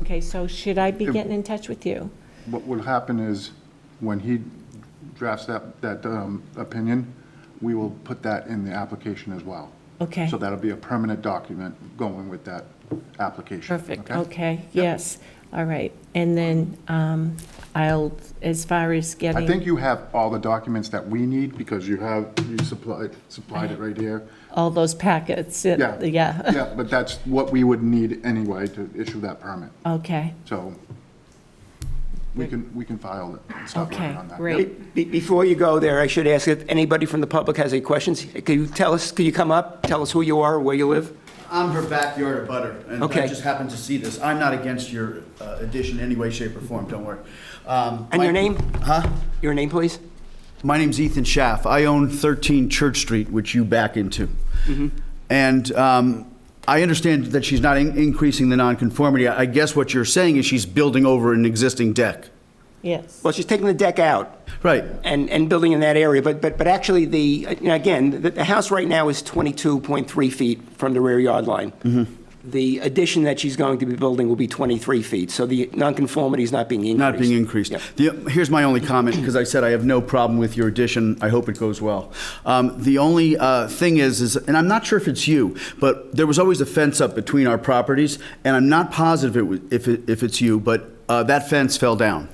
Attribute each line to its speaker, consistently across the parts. Speaker 1: Okay, so should I be
Speaker 2: It-
Speaker 1: getting in touch with you?
Speaker 2: What will happen is, when he drafts that, that um, opinion, we will put that in the application as well.
Speaker 1: Okay.
Speaker 2: So that'll be a permanent document going with that application.
Speaker 1: Perfect,
Speaker 2: Okay?
Speaker 1: okay, yes, all right. And then um, I'll, as far as
Speaker 2: I
Speaker 1: getting
Speaker 2: think you have all the documents that we need, because you have, you supplied, supplied it right here.
Speaker 1: all those packets, it-
Speaker 2: Yeah.
Speaker 1: Uh, yeah,
Speaker 2: Yeah, but that's what we would need anyway to issue that permit.
Speaker 1: okay,
Speaker 2: So we can, we can file it and stop
Speaker 1: Okay,
Speaker 2: working on that.
Speaker 1: great.
Speaker 2: Yep.
Speaker 1: Great.
Speaker 3: Be- Before you go there, I should ask if anybody from the public has any questions. Could you tell us, could you come up, tell us who you are, where you live?
Speaker 4: I'm her backyard abutter, and I
Speaker 3: Okay.
Speaker 4: just happened to see this. I'm not against your uh, addition in any way, shape, or form, don't worry. Um,
Speaker 3: And your
Speaker 4: my-
Speaker 3: name?
Speaker 4: Huh?
Speaker 3: Your name, please?
Speaker 4: My name's Ethan Schaff. I own 13 Church Street, which you back into.
Speaker 3: Mm-hmm.
Speaker 4: And um, I understand that she's not in- increasing the nonconformity. I I guess what you're saying is she's building over an existing deck.
Speaker 1: yes.
Speaker 3: Well, she's taking the deck out
Speaker 4: Right.
Speaker 3: and, and building in that area, but, but, but actually the, you know, again, the, the house right now is 22.3 feet from the rear yard line.
Speaker 4: Mm-hmm.
Speaker 3: The addition that she's going to be building will be 23 feet, so the nonconformity is not being increased.
Speaker 4: Not being increased.
Speaker 3: Yep.
Speaker 4: The, here's my only comment, because I said I have no problem with your addition. I hope it goes well. Um, the only uh, thing is, is, and I'm not sure if it's you, but there was always a fence up between our properties, and I'm not positive it was, if, it, if it's you, but uh, that fence fell down.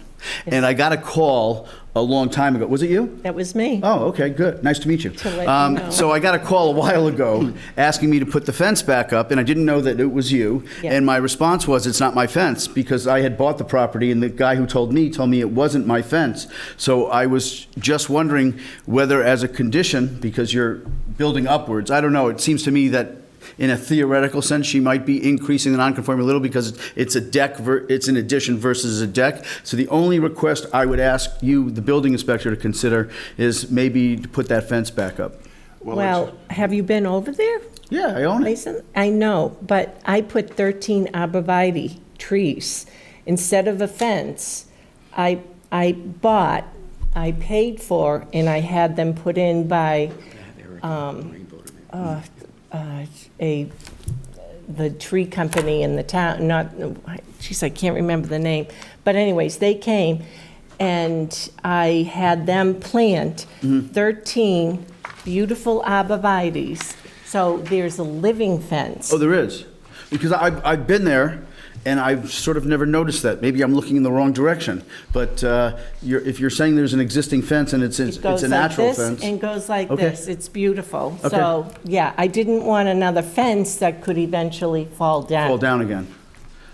Speaker 4: And I got a call a long time ago. Was it you?
Speaker 1: That was me.
Speaker 4: Oh, okay, good. Nice to meet you.
Speaker 1: To let you
Speaker 4: Um,
Speaker 1: know.
Speaker 4: So I got a call a while ago asking me to put the fence back up, and I didn't know that it was you.
Speaker 1: Yeah.
Speaker 4: And my response was, it's not my fence, because I had bought the property, and the guy who told me told me it wasn't my fence. So I was just wondering whether, as a condition, because you're building upwards, I don't know, it seems to me that in a theoretical sense, she might be increasing the nonconformity a little because it's a deck, ver- it's an addition versus a deck. So the only request I would ask you, the building inspector, to consider is maybe to put that fence back up.
Speaker 2: it's-
Speaker 1: Well, have you been over there,
Speaker 4: Yeah, I own it.
Speaker 1: Mason? I know, but I put 13 arborvitae trees. Instead of a fence, I, I bought, I paid for, and I had them put in by um, uh, uh, a, the tree company in the town, not, geez, I can't remember the name. But anyways, they came, and I had them plant
Speaker 4: Mm-hmm.
Speaker 1: 13 beautiful arborvitae's. So there's a living fence.
Speaker 4: Oh, there is. Because I, I've been there and I've sort of never noticed that. Maybe I'm looking in the wrong direction. But uh, you're, if you're saying there's an existing fence and it's, it's
Speaker 1: It
Speaker 4: it's
Speaker 1: goes
Speaker 4: a
Speaker 1: like
Speaker 4: natural
Speaker 1: this
Speaker 4: fence.
Speaker 1: and goes like
Speaker 4: Okay.
Speaker 1: this. It's beautiful.
Speaker 4: Okay.
Speaker 1: So, yeah, I didn't want another fence that could eventually fall down.
Speaker 4: fall down again.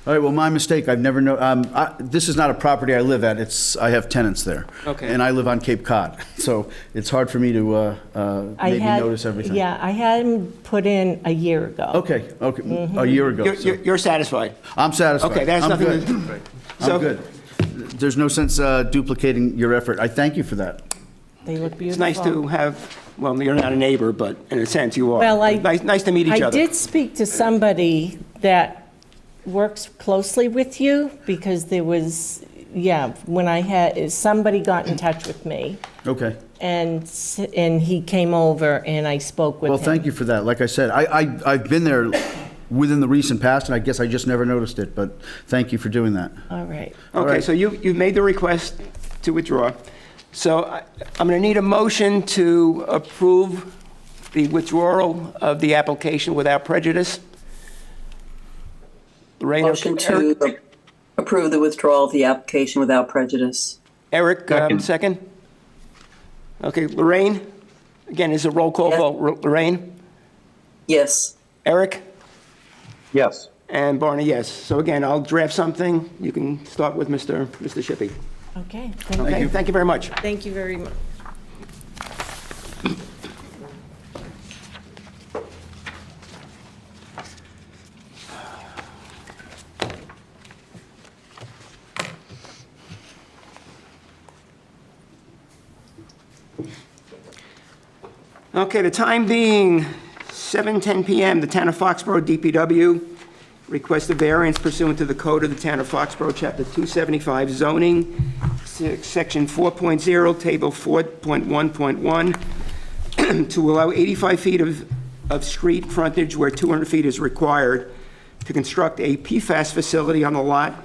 Speaker 4: All right, well, my mistake, I've never know, um, I, this is not a property I live at, it's, I have tenants there.
Speaker 3: Okay.
Speaker 4: And I live on Cape Cod, so it's hard for me to, uh, uh,
Speaker 1: I
Speaker 4: maybe
Speaker 1: had-
Speaker 4: notice everything.
Speaker 1: Yeah, I had them put in a year ago.
Speaker 4: Okay, okay,
Speaker 1: Mm-hmm.
Speaker 4: a year ago,
Speaker 3: You're,
Speaker 4: so,
Speaker 3: you're you're satisfied?
Speaker 4: I'm satisfied.
Speaker 3: Okay, that's
Speaker 4: I'm
Speaker 3: nothing
Speaker 4: good.
Speaker 3: to- So-
Speaker 4: I'm good. There's no sense, uh, duplicating your effort, I thank you for that.
Speaker 1: They look beautiful.
Speaker 3: It's nice to have, well, you're not a neighbor, but in a sense you are.
Speaker 1: Well, I.
Speaker 3: Nice, nice to meet each
Speaker 1: I
Speaker 3: other.
Speaker 1: did speak to somebody that works closely with you because there was, yeah, when I had, somebody got in touch with me
Speaker 4: Okay.
Speaker 1: and, s- and he came over and I spoke with him.
Speaker 4: Well, thank you for that. Like I said, I, I, I've been there within the recent past, and I guess I just never noticed it, but thank you for doing that.
Speaker 1: All right.
Speaker 4: All
Speaker 3: Okay,
Speaker 4: right.
Speaker 3: so you, you've made the request to withdraw. So I- I'm going to need a motion to approve the withdrawal of the application without prejudice. Lorraine,
Speaker 5: Motion to approve the withdrawal of the application without prejudice.
Speaker 3: Eric, um, second? Okay, Lorraine, again, is a roll call
Speaker 5: Yes.
Speaker 3: vote. Lorraine,
Speaker 5: Yes.
Speaker 3: Eric,
Speaker 6: Yes.
Speaker 3: and Barney, yes. So again, I'll draft something. You can start with Mr. Mr. Shippey.
Speaker 1: Okay.
Speaker 3: Okay, thank you very much.
Speaker 1: Thank you very much.
Speaker 3: Okay, the time being 7:10 PM, the Town of Foxborough DPW requests a variance pursuant to the code of the Town of Foxborough, Chapter 275 zoning, se- Section 4.0, Table 4.1.1, to allow 85 feet of, of street frontage where 200 feet is required to construct a PFAS facility on the lot